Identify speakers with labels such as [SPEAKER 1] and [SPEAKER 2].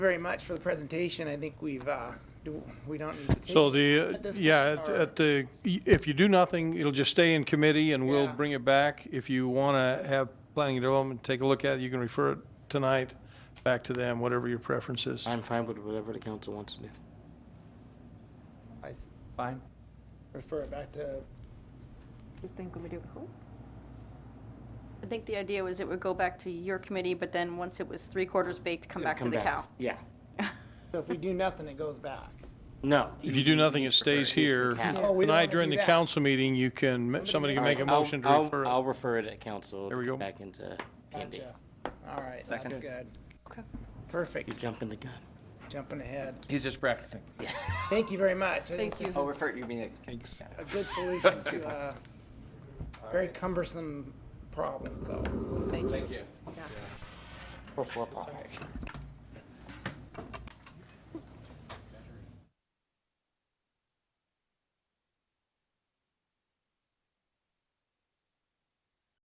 [SPEAKER 1] very much for the presentation. I think we've, uh, do- we don't need to take.
[SPEAKER 2] So the, uh,
[SPEAKER 1] at this
[SPEAKER 2] yeah,
[SPEAKER 1] point,
[SPEAKER 2] at-
[SPEAKER 1] or-
[SPEAKER 2] at the, if you do nothing, it'll just stay in committee and we'll
[SPEAKER 1] Yeah.
[SPEAKER 2] bring it back. If you want to have planning and development, take a look at it, you can refer it tonight back to them, whatever your preference is.
[SPEAKER 3] I'm fine with whatever the council wants to do.
[SPEAKER 1] I- Fine. Refer it back to,
[SPEAKER 4] Just think when we do it who? I think the idea was it would go back to your committee, but then once it was three quarters baked, come back to the cow.
[SPEAKER 3] Yeah.
[SPEAKER 1] so if we do nothing, it goes back.
[SPEAKER 3] No.
[SPEAKER 2] If you do nothing, it
[SPEAKER 3] prefer
[SPEAKER 2] stays
[SPEAKER 3] it is the
[SPEAKER 2] here.
[SPEAKER 3] cow.
[SPEAKER 1] Yeah. Oh, we don't wanna
[SPEAKER 2] Tonight during
[SPEAKER 1] do
[SPEAKER 2] the
[SPEAKER 1] that.
[SPEAKER 2] council meeting, you can, ma- somebody can make a
[SPEAKER 3] All right, I'll-
[SPEAKER 2] motion to
[SPEAKER 3] I'll-
[SPEAKER 2] refer
[SPEAKER 3] I'll
[SPEAKER 2] it.
[SPEAKER 3] refer it at council.
[SPEAKER 2] There we go.
[SPEAKER 3] Back into P and D.
[SPEAKER 1] Gotcha. All right, that's
[SPEAKER 5] Second.
[SPEAKER 1] good.
[SPEAKER 4] Okay.
[SPEAKER 3] You're
[SPEAKER 1] Perfect.
[SPEAKER 3] jumping the gun.
[SPEAKER 1] Jumping ahead.
[SPEAKER 5] He's just practicing.
[SPEAKER 1] Thank you very much. I think
[SPEAKER 4] Thank you.
[SPEAKER 1] this
[SPEAKER 5] Oh,
[SPEAKER 1] is
[SPEAKER 5] refer, you mean it.
[SPEAKER 1] A good solution to a very cumbersome problem, so.
[SPEAKER 3] Or four paw.